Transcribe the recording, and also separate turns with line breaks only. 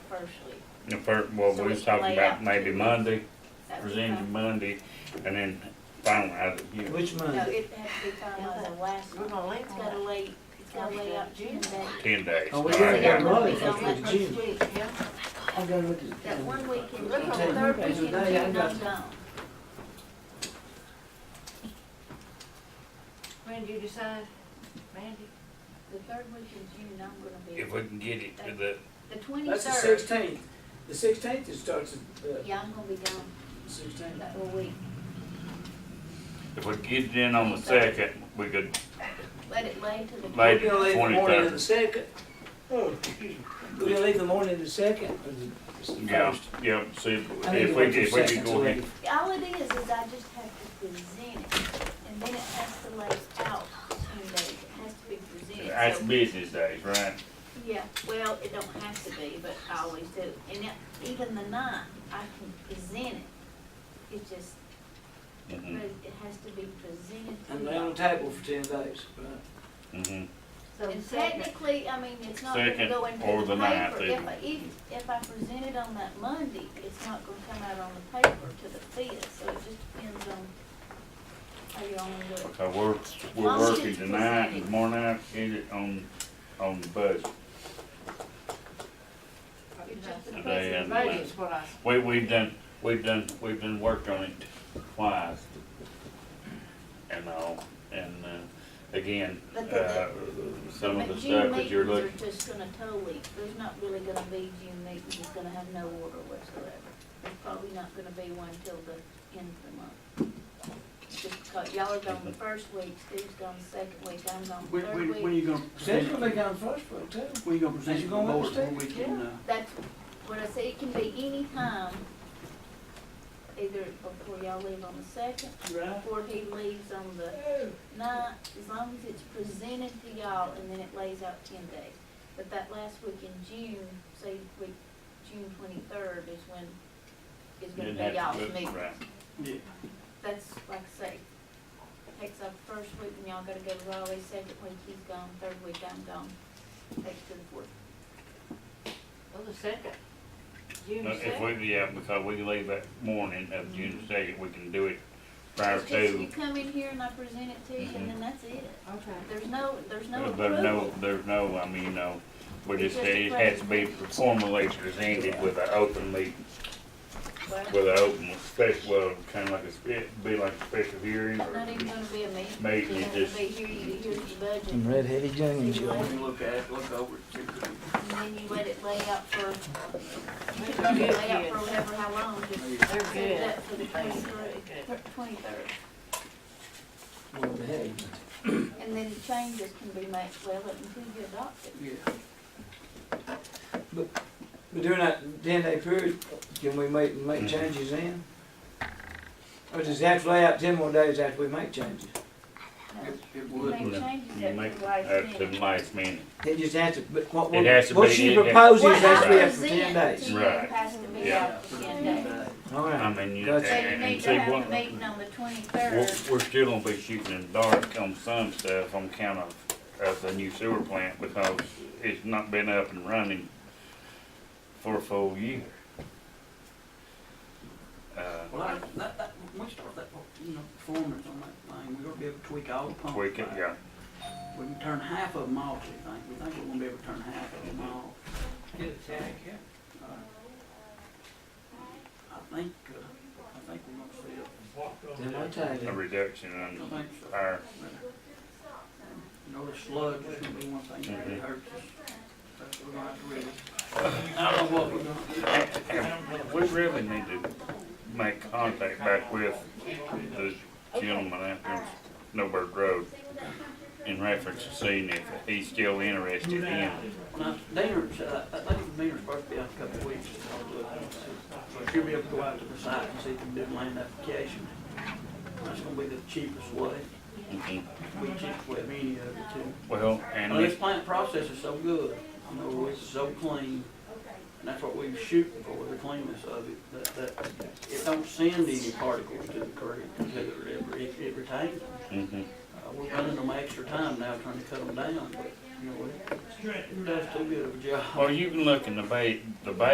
partially.
The first, well,
So
we
we
was
should
talking
lay
about
out
maybe
two.
Monday,
That was
presented
fine.
Monday, and then finalize it here.
Which
No,
Monday?
it had to be finalized on last
We're
month.
gonna link
It's gotta
that.
lay, it's gotta lay out June day.
Ten days.
Oh, we
All
gotta
right, yeah.
get Monday.
It's on that
June.
first week.
Yeah,
I gotta look at.
That one week in
Look on
June,
third
third week in June,
Today, I
I'm
got-
gone.
when do you decide, Mandy?
The third week in June, I'm gonna be,
If we can get it to the,
the
That's the
twenty-third,
sixteenth. The sixteenth it starts, uh,
yeah, I'm gonna be gone
sixteenth.
that whole week.
if we get it in on the second, we could,
Let it lay to the.
Lay-
We're gonna leave the morning of
23rd.
the second. Oh, excuse me. We're gonna leave the morning of the second. or the- it's the
yeah,
first.
yeah, see, if
I need to
if we,
wait till
if we
second
could
to
go
leave.
ahead.
All it is, is I just have to present it, and then it has to lay out June days, it has to be presented.
That's
So-
business days, right?
Yeah, well, it don't have to be, but I always do, and it- even the night, I can present it. It just,
Mm-hmm,
but it has to be presented to
And lay on the
you.
table for ten days, right?
mm-hmm.
So the
And
second,
technically, I mean, it's not gonna
Second
go into
or
the
the ninth,
paper. If, I- if, if I present it on that Monday, it's not gonna come out on the paper to the fifth, so it just depends on how you wanna do it.
So we're, we're
Long as
working
it's
tonight and
presented.
tomorrow night, get it on, on the budget.
It's just the
Today
presentation.
and the
Monday is what I,
We, we've done, we've done, we've done work on it twice. And all, and, uh, again,
But the-
uh, some of
But
the
June
stuff that you're
meetings
looking,
are just gonna totally, there's not really gonna be June meetings, it's gonna have no order whatsoever. There's probably not gonna be one till the end of the month. Just because y'all are gone the first week, Steve's gone the second week, I'm gone the
When, when,
third
when are
week.
you gonna
Says
present,
we'll be gone first, but too.
when you gonna present
Is you
to the
gonna
board
understand?
before we can, uh,
That's what I say, it can be any time, either before y'all leave on the second,
Right.
before he leaves on the Not, as long as it's presented to y'all and then it lays out ten days. But that last week in June, say week, June twenty-third is when is gonna
didn't
be
have
y'all's
to do it,
meeting.
right?
yeah,
That's like I say, takes up first week and y'all gotta go to Raleigh, second week he's gone, third week I'm gone, takes to the fourth.
well, oh, the second, June
No, Uh, If
second.
we, yeah, because we can leave that morning of June the second, we can do it prior
Mm-hmm. It's just you
to,
come in here and I present it to you and then that's it.
Okay.
There's no, there's no
there's
approval.
no, there's no, I mean, no, we
It's
just,
just a
it has to be formally presented with an open meeting.
Well,
With an open, special, well, kind of like a, spe- be like a special hearing
It's not
or
even gonna be a meeting.
Meeting,
It's
it
gonna
just-
be here, you hear the budget.
Some red heavy
And
Juniors.
then
you look at it, look over it, check it.
you let it lay out for, you can let it lay out for whatever, how long, just
Maybe
They're
set it
good.
up for the twenty-third, twenty-third.
Well, the heavy ones.
And then changes can be made, well, until you adopt it.
Yeah.
But during that ten day period, can we make,
Mm-hmm.
make changes then? Or does it have to lay out ten more days after we make changes?
No.
It, it
You
would.
make
Yeah.
changes
you
at
make,
the
that's
last
the
minute.
last minute.
It just has to, but what,
It has to
what
be-
she
it- it-
proposes
What
has to be
I
after
present to
ten days.
you
Right.
has to be
Yeah.
out for ten days.
All
I
right.
mean, you,
Gotcha.
So you
and
need
and
to
see,
have a
what,
meeting on the
We're,
twenty-third.
we're still gonna be shooting in the dark on some stuff on account of, of the new sewer plant because it's not been up and running for a full year. Uh,
Well, I, that, that, we start that, you know, performance on that thing, we're gonna be able to tweak all the pumps.
we can,
back.
yeah,
We can turn half of them off, we think, we think we're gonna be able to turn half of them off.
Get it, Jack, yeah.
Uh, I think, uh, I think we're
Then
gonna
I'll
see it.
tell
a
you.
reduction
I
on
think so.
our,
You know, the sludge is gonna be one thing that really hurts us. That's what we're gonna have to really, I don't know what we're gonna do.
and we really need to make contact back with the gentleman out there on Snowbird Road in reference to seeing if he's still interested in
Now, Deaners, uh, I think the Deaners supposed to be out a couple of weeks. I'll look and see. So she'll be able to go out to the site and see if we can do land application. That's gonna be the cheapest way,
Mhm.
we cheapest way of any of the two.
Well, and
And Oh, this
let's,
plant process is so good, you know, it's so clean, and that's what we shoot for, the cleanness of it, that, that it don't send any particles to the creek, to the river, it, it retains them.
mhm.
Uh, we're running them extra time now trying to cut them down, but, you know, it it does too good of a job.
Well, you can look in the bay, the bay